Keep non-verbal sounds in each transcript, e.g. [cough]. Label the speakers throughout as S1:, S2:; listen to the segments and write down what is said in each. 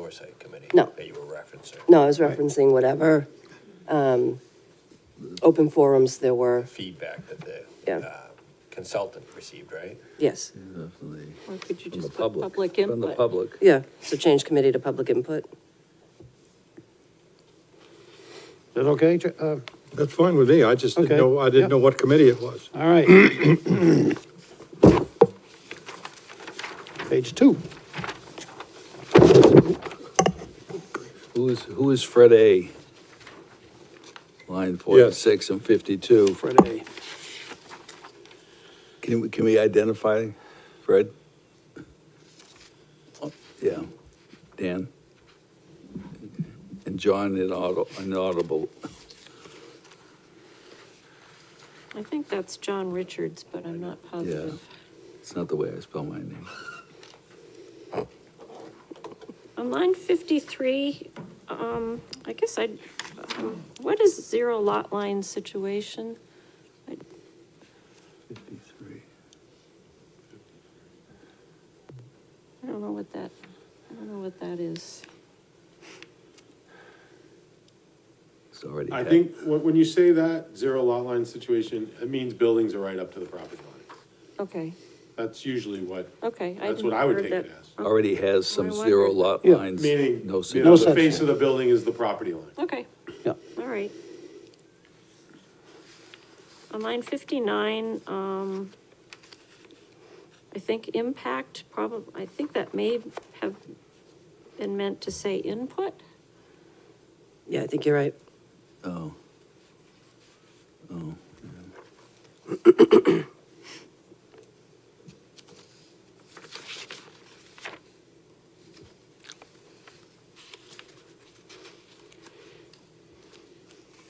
S1: oversight committee?
S2: No.
S1: That you were referencing?
S2: No, I was referencing whatever, um, open forums there were,
S1: Feedback that the
S2: Yeah.
S1: uh, consultant received, right?
S2: yes,
S3: Or could you
S4: From the
S3: just put
S4: public.
S3: public
S4: From the
S3: input?
S4: public.
S2: yeah, so change committee to public input.
S5: Is that okay? Ch- uh,
S6: That's fine with me, I just didn't
S5: Okay.
S6: know, I didn't
S5: Yep.
S6: know what committee it was.
S5: All right. Page two.
S4: Who is, who is Fred A? Line forty-six and fifty-two. Fred A. Can we, can we identify Fred? Oh, Yeah, Dan. And John inaudible, inaudible.
S3: I think that's John Richards, but I'm not positive.
S4: It's not the way I spell my name.
S3: On line fifty-three, um, I guess I'd, um, what is zero lot line situation? I-
S4: Fifty-three.
S3: I don't know what that, I don't know what that is.
S4: It's already.
S7: I
S4: had-
S7: think, when, when you say that, zero lot line situation, it means buildings are right up to the property line.
S3: Okay,
S7: That's usually what,
S3: okay.
S7: that's
S3: hadn't
S7: what I would
S3: heard
S7: take it
S3: that.
S7: as.
S4: Already has some
S3: I wondered.
S4: zero lot
S5: Yeah,
S4: lines.
S7: Meaning,
S4: No
S7: you know,
S4: zero.
S7: the
S5: section.
S7: face of the building is the property line.
S3: Okay,
S5: Yeah.
S3: all right. On line fifty-nine, um, I think impact probab, I think that may have been meant to say input.
S2: Yeah, I think you're right.
S4: Oh. Oh.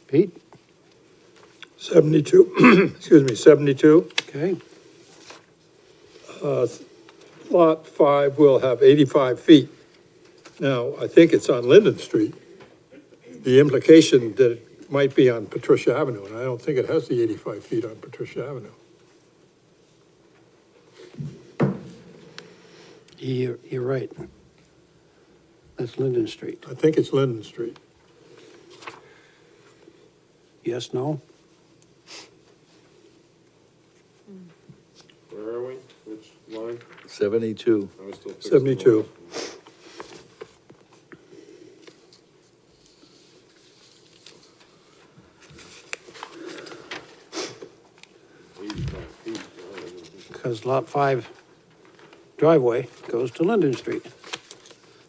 S5: Pete,
S6: 72, [clears throat] excuse me, 72,
S5: okay.
S6: uh, Lot 5 will have 85 feet. Now, I think it's on Linden Street. The implication that it might be on Patricia Avenue, and I don't think it has the 85 feet on Patricia Avenue.
S5: You're, you're right. That's Linden Street.
S6: I think it's Linden Street.
S5: Yes, no?
S7: Where are we? Which line?
S4: Seventy-two.
S7: I was still fixing the
S6: 72.
S7: line. 85 feet. Oh, I didn't think so.
S5: Because Lot 5 driveway goes to Linden Street.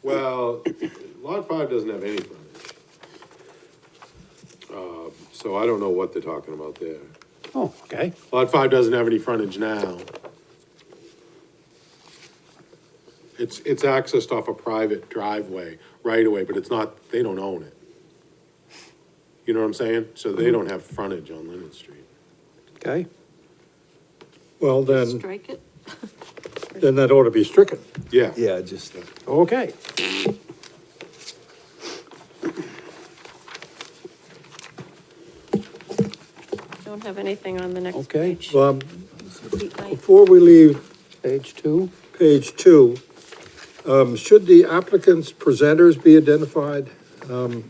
S7: Well, lot five doesn't have any frontage. Uh, So I don't know what they're talking about there.
S5: Oh, okay.
S7: Lot five doesn't have any frontage now. It's, it's accessed off a private driveway, right away, but it's not, they don't own it. You know what I'm saying? So they don't have frontage on Lennon Street.
S5: Okay.
S6: Well, then,
S3: Strike it.
S6: then that ought to be stricken.
S7: Yeah.
S4: Yeah, just,
S5: Okay.
S3: Don't have anything on the next
S5: Okay.
S3: page.
S6: Um,
S3: Complete night.
S6: Before we leave
S5: Page two.
S6: page two, um, should the applicant's presenters be identified? Um,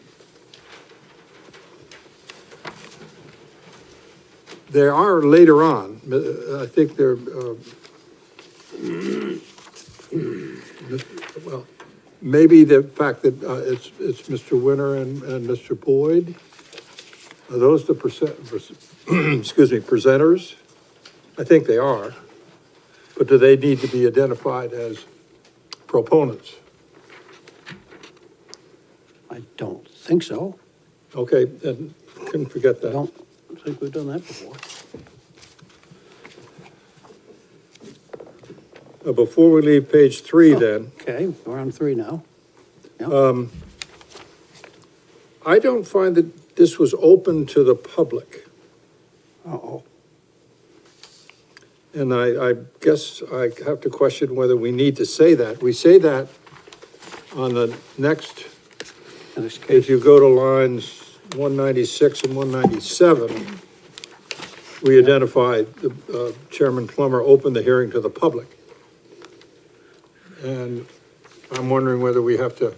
S6: There are later on, uh, I think there, uh, well, maybe the fact that uh, it's, it's Mr. Winter and, and Mr. Boyd? Are those the percent, [clears throat] excuse me, presenters? I think they are. But do they need to be identified as proponents?
S5: I don't think so.
S6: Okay, and couldn't forget
S5: I
S6: that.
S5: don't think we've done that before.
S6: Uh, Before we leave page three then,
S5: Okay, we're on three now. Yeah.
S6: I don't find that this was open to the public.
S5: Uh-oh.
S6: And I, I guess I have to question whether we need to say that. We say that on the next,
S5: In this case,
S6: if you go to lines one ninety-six and one ninety-seven, we identify the, uh, Chairman Plummer opened the hearing to the public. And I'm wondering whether we have to